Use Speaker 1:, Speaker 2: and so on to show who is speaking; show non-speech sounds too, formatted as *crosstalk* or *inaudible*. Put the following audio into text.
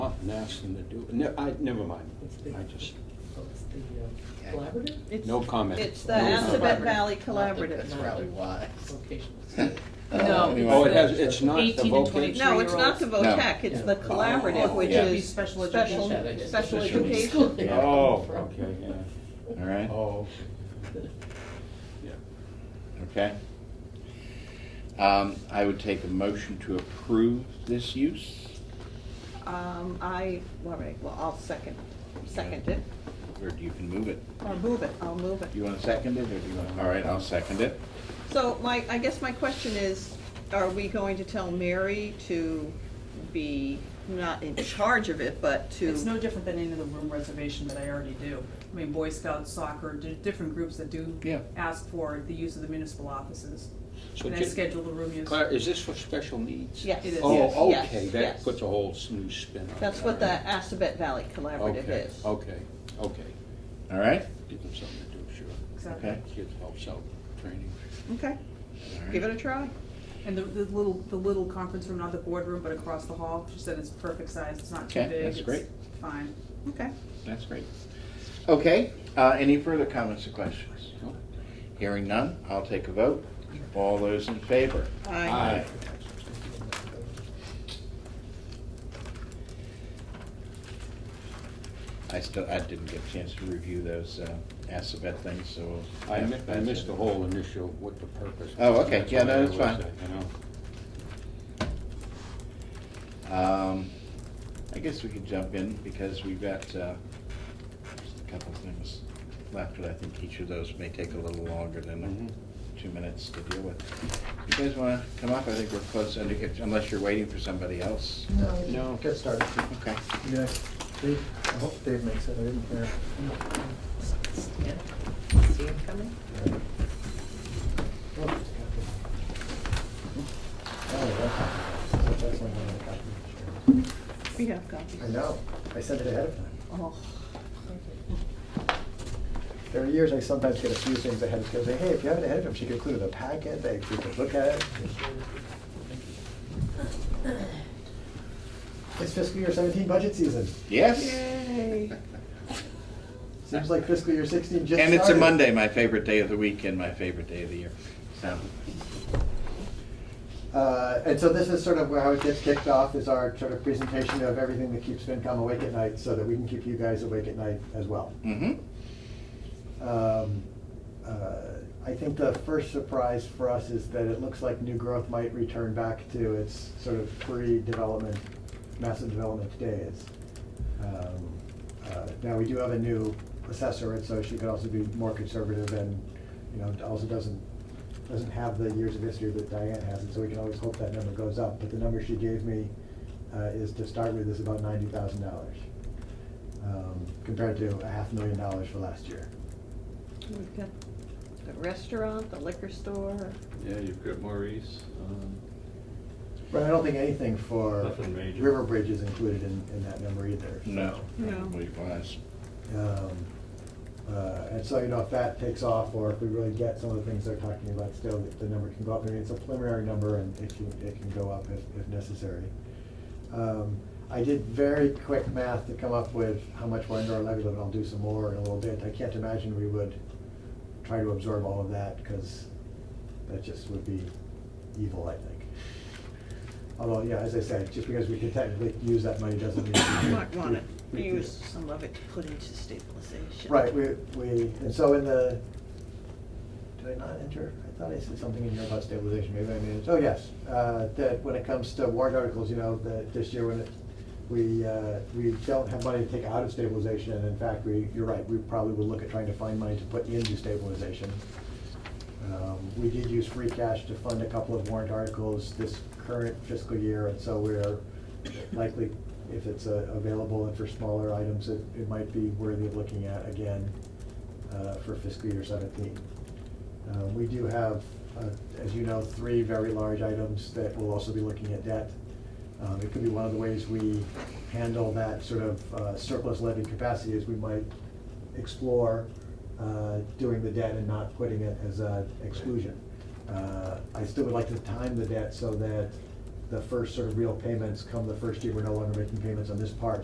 Speaker 1: and asked them to do, ne- I, never mind, I just,
Speaker 2: It's the uh, collaborative
Speaker 1: no comment.
Speaker 3: It's the
Speaker 1: No
Speaker 3: Assabet
Speaker 1: comment.
Speaker 3: Valley
Speaker 2: I think
Speaker 3: Collaborative.
Speaker 2: that's
Speaker 4: Probably why.
Speaker 5: *laughs*
Speaker 2: location.
Speaker 4: Uh, anyway.
Speaker 1: Oh, it has, it's not the
Speaker 6: 18 to
Speaker 1: vocation.
Speaker 6: 20.
Speaker 3: No, it's not the
Speaker 4: No.
Speaker 3: VOTEC, it's the collaborative,
Speaker 4: Oh,
Speaker 3: which
Speaker 4: yeah.
Speaker 3: is
Speaker 6: Special
Speaker 3: special,
Speaker 6: education, I guess.
Speaker 3: special
Speaker 4: Special
Speaker 3: education.
Speaker 2: *laughs*
Speaker 4: Yeah.
Speaker 1: Oh, okay, yeah,
Speaker 4: All right,
Speaker 1: oh, yeah.
Speaker 4: oh, okay. Um, I would take a motion to approve this use.
Speaker 3: Um, I, all right, well, I'll second, second it,
Speaker 4: Or you can move it.
Speaker 3: or move it, I'll move it.
Speaker 4: You want to second it, or do you want, all right, I'll second it.
Speaker 3: So my, I guess my question is, are we going to tell Mary to be not in charge of it, but
Speaker 6: It's no
Speaker 3: to?
Speaker 6: different than any of the room reservation that I already do. I mean, Boy Scouts, soccer, di- different groups that do
Speaker 4: Yeah.
Speaker 6: ask for the use of the municipal offices.
Speaker 1: So
Speaker 6: And I
Speaker 1: ju-
Speaker 6: schedule the room use.
Speaker 1: Claire, is this for special needs?
Speaker 3: Yes.
Speaker 6: It is. Yes.
Speaker 1: Oh,
Speaker 3: Yes,
Speaker 1: okay,
Speaker 3: yes.
Speaker 1: that puts a whole s- new spin on it.
Speaker 3: That's what the Assabet Valley Collaborative
Speaker 1: Okay,
Speaker 3: is.
Speaker 1: okay, okay,
Speaker 4: All right?
Speaker 1: give them something to do, sure,
Speaker 6: Exactly.
Speaker 4: Okay.
Speaker 1: kids helps out, with training.
Speaker 3: Okay,
Speaker 4: All right.
Speaker 3: give it a try.
Speaker 6: And the, the little, the little conference room, not the boardroom, but across the hall, she said it's perfect size, it's not too
Speaker 4: Okay,
Speaker 6: big.
Speaker 4: that's
Speaker 6: it's
Speaker 4: great.
Speaker 6: Fine.
Speaker 3: Okay.
Speaker 4: That's great. Okay, uh, any further comments or questions?
Speaker 1: No?
Speaker 4: Hearing none, I'll take a vote. All those in favor?
Speaker 3: I
Speaker 4: I still, I didn't get a chance to review those uh, Assabet things, so.
Speaker 1: I mi- I
Speaker 4: that's
Speaker 1: missed
Speaker 4: it.
Speaker 1: the whole initial, what the purpose. was.
Speaker 4: Oh, okay.
Speaker 1: That's
Speaker 4: Yeah, no,
Speaker 1: all I
Speaker 4: that's
Speaker 1: was,
Speaker 4: fine.
Speaker 1: uh, you know.
Speaker 4: Um, I guess we could jump in because we've got uh, just a couple things left, but I think each of those may take a little longer than
Speaker 1: Mhm.
Speaker 4: two minutes to deal with. You guys wanna come up? I think we're close, and if- unless you're waiting for somebody else.
Speaker 2: No.
Speaker 1: No.
Speaker 2: Get started.
Speaker 4: Okay.
Speaker 5: Yeah, Dave, I hope Dave makes it, I didn't hear.
Speaker 3: See it coming?
Speaker 5: Oh, Oh, that's- that's not gonna happen.
Speaker 3: We have copies.
Speaker 5: I know, I said it ahead of time.
Speaker 3: Oh,
Speaker 5: There are years I sometimes get a few things ahead of schedule, say, hey, if you have it ahead of time, she could include it in the packet, they, we could look at it. It's fiscal year seventeen budget season,
Speaker 4: Yes?
Speaker 3: Yay.
Speaker 5: seems like fiscal year sixteen just started.
Speaker 4: And it's a Monday, my favorite day of the week and my favorite day of the year. So,
Speaker 5: Uh, and so this is sort of where how it gets kicked off is our sort of presentation of everything that keeps FinCom awake at night so that we can keep you guys awake at night as well.
Speaker 4: mm-hmm.
Speaker 5: Um, uh, I think the first surprise for us is that it looks like new growth might return back to its sort of pre-development, massive development days. Um, uh, Now, we do have a new assessor, and so she could also be more conservative and, you know, also doesn't, doesn't have the years of history that Diane has, and so we can always hope that number goes up. But the number she gave me uh, is to start with is about ninety thousand dollars, um, compared to a half million dollars for last year.
Speaker 3: We've got the restaurant, the liquor store.
Speaker 7: Yeah, you've got Maurice. um,
Speaker 5: Right, I don't think anything for
Speaker 7: Nothing major.
Speaker 5: River Bridge is included in, in that number either.
Speaker 4: No.
Speaker 3: No.
Speaker 4: Probably was.
Speaker 5: Um, uh, And so, you know, if that takes off, or if we really get some of the things they're talking about still, the- the number can go up. I mean, it's a preliminary number and it can, it can go up if, if necessary. Um, I did very quick math to come up with how much we're under our levy limit. I'll do some more in a little bit. I can't imagine we would try to absorb all of that, because that just would be evil, I think. Although, yeah, as I said, just because we could technically use that money doesn't mean.
Speaker 3: *coughs* You
Speaker 5: we
Speaker 3: might want
Speaker 5: *coughs* we-
Speaker 3: to
Speaker 5: we-
Speaker 3: use some of it to put into stabilization.
Speaker 5: Right, we, we, and so in the, did I not enter? I thought I said something in here about stabilization, maybe I made it, oh, yes. Uh, that when it comes to warrant articles, you know, that this year when it, we, uh, we don't have money to take out of stabilization, and in fact, we, you're right, we probably will look at trying to find money to put into stabilization. Um, We did use free cash to fund a couple of warrant articles this current fiscal year, and so we're likely, if it's uh, available and for smaller items, it, it might be worthy of looking at again uh, for fiscal year seventeen. Uh, We do have, uh, as you know, three very large items that we'll also be looking at debt. Um, It could be one of the ways we handle that sort of uh, surplus levy capacity is we might explore uh, doing the debt and not putting it as an exclusion. Uh, I still would like to time the debt so that the first sort of real payments come the first year, we're no longer making payments on this part,